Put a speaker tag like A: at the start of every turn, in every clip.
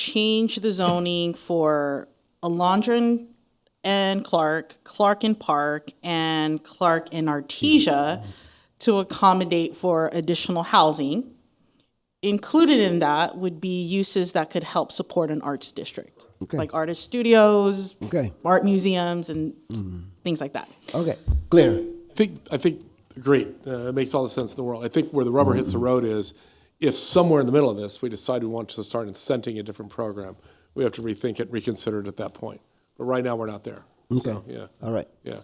A: change the zoning for Alondra and Clark, Clark and Park, and Clark and Artesia to accommodate for additional housing. Included in that would be uses that could help support an arts district,
B: Okay.
A: like artist studios,
B: Okay.
A: art museums, and things like that.
B: Okay, clear.
C: I think, I think, great, uh, it makes all the sense in the world. I think where the rubber hits the road is if somewhere in the middle of this, we decide we want to start incenting a different program, we have to rethink it, reconsider it at that point. But right now, we're not there.
B: Okay.
C: So, Yeah,
B: All right.
C: yeah.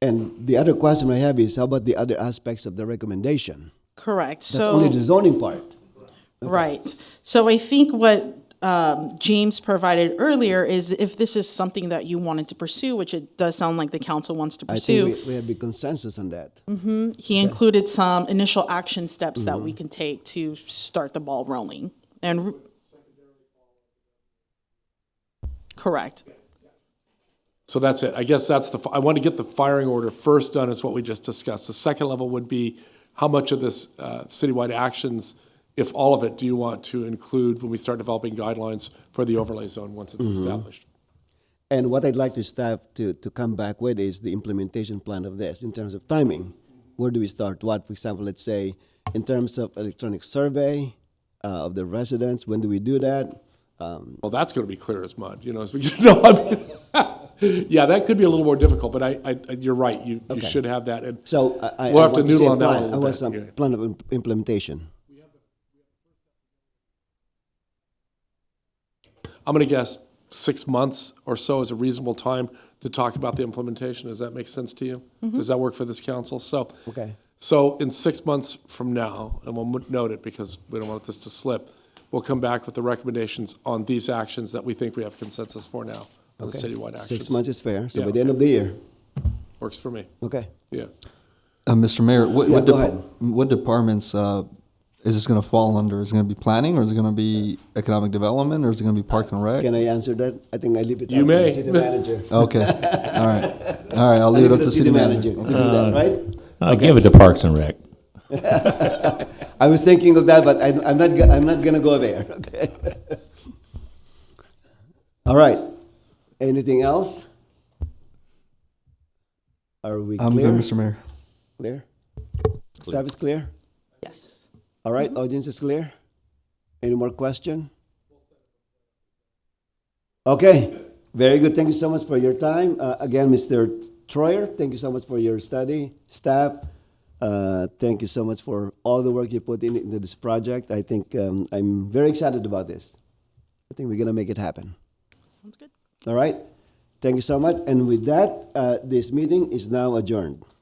B: And the other question I have is how about the other aspects of the recommendation?
A: Correct. So
B: That's only the zoning part.
A: Right. So I think what um, James provided earlier is if this is something that you wanted to pursue, which it does sound like the council wants to
B: I think
A: pursue,
B: we, we have a consensus on that.
C: Mm-hmm.
A: he included some initial action steps that
B: Mm-hmm.
A: we can take to start the ball rolling. And r- correct.
C: So that's it. I guess that's the, I want to get the firing order first done is what we just discussed. The second level would be how much of this uh, citywide actions, if all of it, do you want to include when we start developing guidelines for the overlay zone once it's established?
B: And what I'd like to staff to, to come back with is the implementation plan of this in terms of timing. Where do we start? What, for example, let's say in terms of electronic survey uh, of the residents, when do we do that? Um,
C: Well, that's going to be clear as mud, you know, as we, no, I mean, yeah, that could be a little more difficult, but I, I, you're right, you, you should have that. And
B: so I, I,
C: We'll
B: I
C: have to
B: want see
C: noodle
B: a
C: on that a
B: plan.
C: little
B: I um, want
C: bit,
B: some
C: yeah.
B: plan of im- implementation.
C: I'm going to guess six months or so is a reasonable time to talk about the implementation. Does that make sense to you? Does that work for this council? So.
B: Mm-hmm. Okay.
C: So in six months from now, and we'll note it because we don't want this to slip, we'll come back with the recommendations on these actions that we think we have consensus for now, on the citywide actions.
B: Six months is fair. So
C: Yeah,
B: by the end of the year,
C: Works for me,
B: okay.
C: yeah.
D: Uh, Mr. Mayor, what,
B: Yeah,
D: what,
B: go
D: depa-
B: ahead.
D: what departments uh, is this going to fall under? Is it going to be planning, or is it going to be economic development, or is it going to be park and rec?
B: Can I answer that? I think I leave it
C: You
B: up to
C: may.
B: the city manager.
D: okay, all right, all right. I'll
B: I
D: leave it up to city manager.
B: to do that,
C: Uh,
B: right?
E: I'll Uh, give it to Parks and Rec.
B: I was thinking of that, but I'm, I'm not, go- I'm not gonna go there, okay? All right, anything else? Are we
D: I'm good,
B: clear?
D: Mr. Mayor.
B: Clear? Staff is clear?
A: Yes.
B: All right, audience is clear? Any more question? Okay, very good. Thank you so much for your time. Uh, again, Mr. Troyer, thank you so much for your study. Staff, uh, thank you so much for all the work you put in, into this project. I think um, I'm very excited about this. I think we're going to make it happen.
A: Sounds good.
B: All right? Thank you so much. And with that, uh, this meeting is now adjourned.